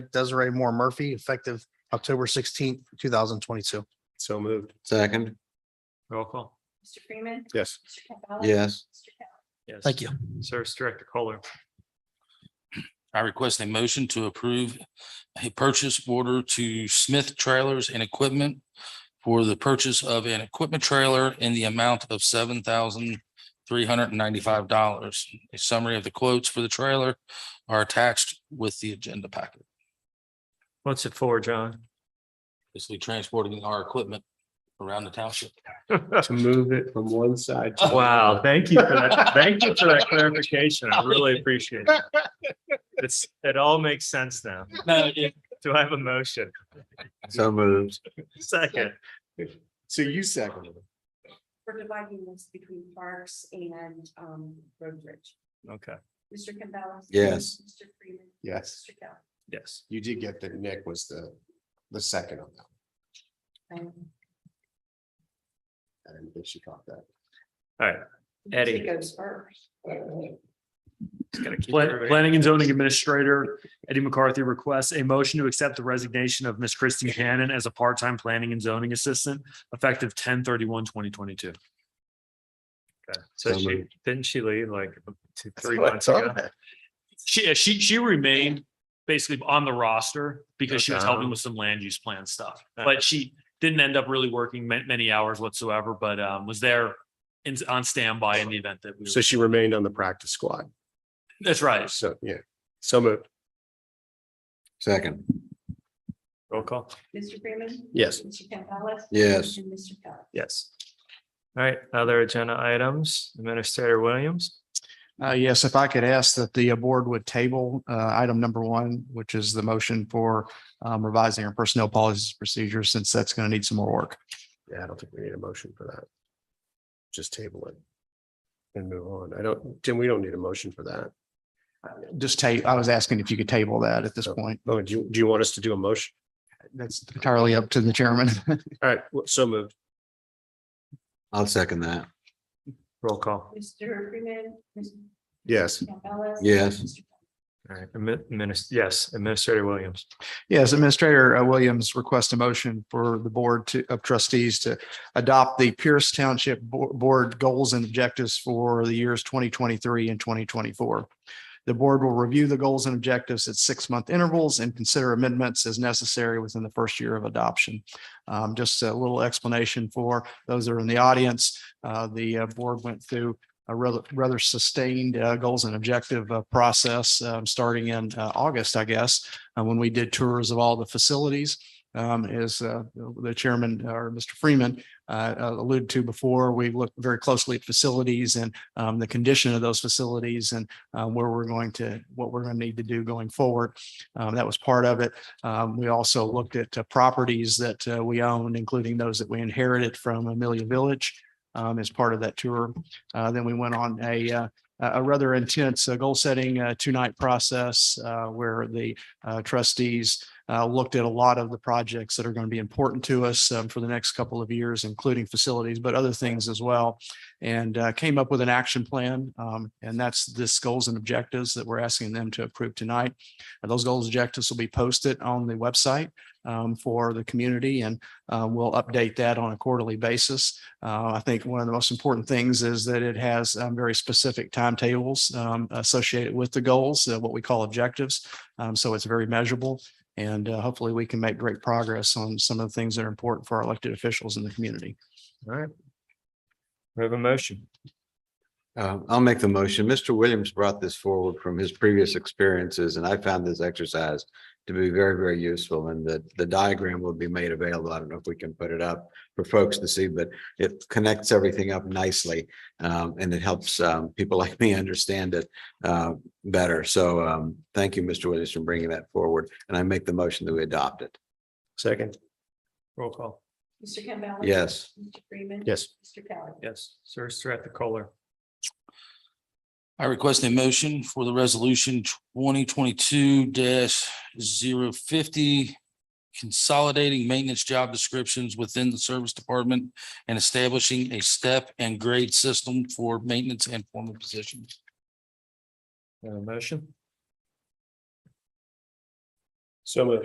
Desiree Moore Murphy, effective October sixteenth, two thousand twenty-two. So moved. Second, Roll call. Mr. Freeman. Yes. Mr. Campbell. yes, Mr. Campbell. Yes. Thank you. Service Director Kohler. I request a motion to approve a purchase order to Smith Trailers and Equipment for the purchase of an equipment trailer in the amount of seven thousand three hundred and ninety-five dollars. A summary of the quotes for the trailer are attached with the agenda packet. What's it for, John? Basically transporting our equipment around the township. To move it from one side. to the Wow, other. thank you for that. Thank you for that clarification. I really appreciate it. It's, it all makes sense now. No, it- Do I have a motion? so moved. Second, So you seconded. it. We're dividing this between parks and um road bridge. okay, Mr. Campbell. Yes. Mr. Freeman. Yes, Mr. Campbell. yes. you did get that Nick was the, the second on that. Um, I didn't think she caught that. Eddie. It goes first. Pla- Planning and zoning administrator Eddie McCarthy requests a motion to accept the resignation of Miss Kristen Cannon as a part-time planning and zoning assistant effective 2022. Okay, so So she, moved. didn't she leave like two, three months ago? She, she, she remained basically on the roster because she was helping with some land use plan stuff. But she didn't end up really working ma- many hours whatsoever, but, um, was there in, on standby in the event that we, So were- she remained on the practice squad. that's right. So, yeah, so moved. Second, Roll call. Mr. Freeman. Yes. Mr. Campbell. Yes. And Mr. Campbell. Yes. All right, other agenda items, Administrator Williams. Uh, yes, if I could ask that the uh, board would table, uh, item number one, which is the motion for, um, revising our personnel policies and procedures, since that's going to need some more work. Yeah, I don't think we need a motion for that. Just table it. And move on. I don't, Jim, we don't need a motion for that. Just ta, I was asking if you could table that at this So- point. Oh, do you, do you want us to do a motion? That's entirely up to the chairman. All right, well, so moved. I'll second that, Roll call. Mr. Freeman. Mr. Yes. Campbell. Yes. Mr. Campbell. All right, Admin- Minis- yes, Administrator Williams. Yes, Administrator uh, Williams requests a motion for the Board to- of Trustees to adopt the Pierce Township Bo- Board Goals and Objectives for the years twenty twenty-three and twenty twenty-four. The board will review the goals and objectives at six-month intervals and consider amendments as necessary within the first year of adoption. Um, Just a little explanation for those that are in the audience. Uh, The uh, board went through a rather rather sustained uh, goals and objective uh, process, um, starting in uh, August, I guess. Uh, when we did tours of all the facilities. Um, as uh, the chairman or Mr. Freeman uh, alluded to before, we looked very closely at facilities and um, the condition of those facilities and uh, where we're going to, what we're going to need to do going forward. Um, that was part of it. Um, we also looked at uh, properties that uh, we owned, including those that we inherited from Amelia Village um, as part of that tour. Uh, then we went on a uh, a rather intense uh, goal-setting uh, two-night process uh, where the uh, trustees uh, looked at a lot of the projects that are going to be important to us um, for the next couple of years, including facilities, but other things as well. And uh, came up with an action plan, um, and that's this goals and objectives that we're asking them to approve tonight. And Those goals and objectives will be posted on the website um, for the community, and uh, we'll update that on a quarterly basis. Uh, I think one of the most important things is that it has um, very specific timetables um, associated with the goals, uh, what we call objectives. Um, so it's very measurable and uh, hopefully we can make great progress on some of the things that are important for our elected officials in the community. All right. We have a motion. Uh, I'll make the motion. Mr. Williams brought this forward from his previous experiences, and I found this exercise to be very, very useful, and the, the diagram will be made available. I don't know if we can put it up for folks to see, but it connects everything up nicely, um, and it helps, um, people like me understand it, uh, better. So, um, thank you, Mr. Williams, for bringing that forward, and I make the motion that we adopt it. Second. Roll call. Mr. Campbell. Yes. Mr. Freeman. Yes. Mr. Campbell. Yes, Service Director Kohler. I request a motion for the resolution twenty twenty-two 50 Consolidating maintenance job descriptions within the service department and establishing a step and grade system for maintenance and formal positions. We have a motion. So moved.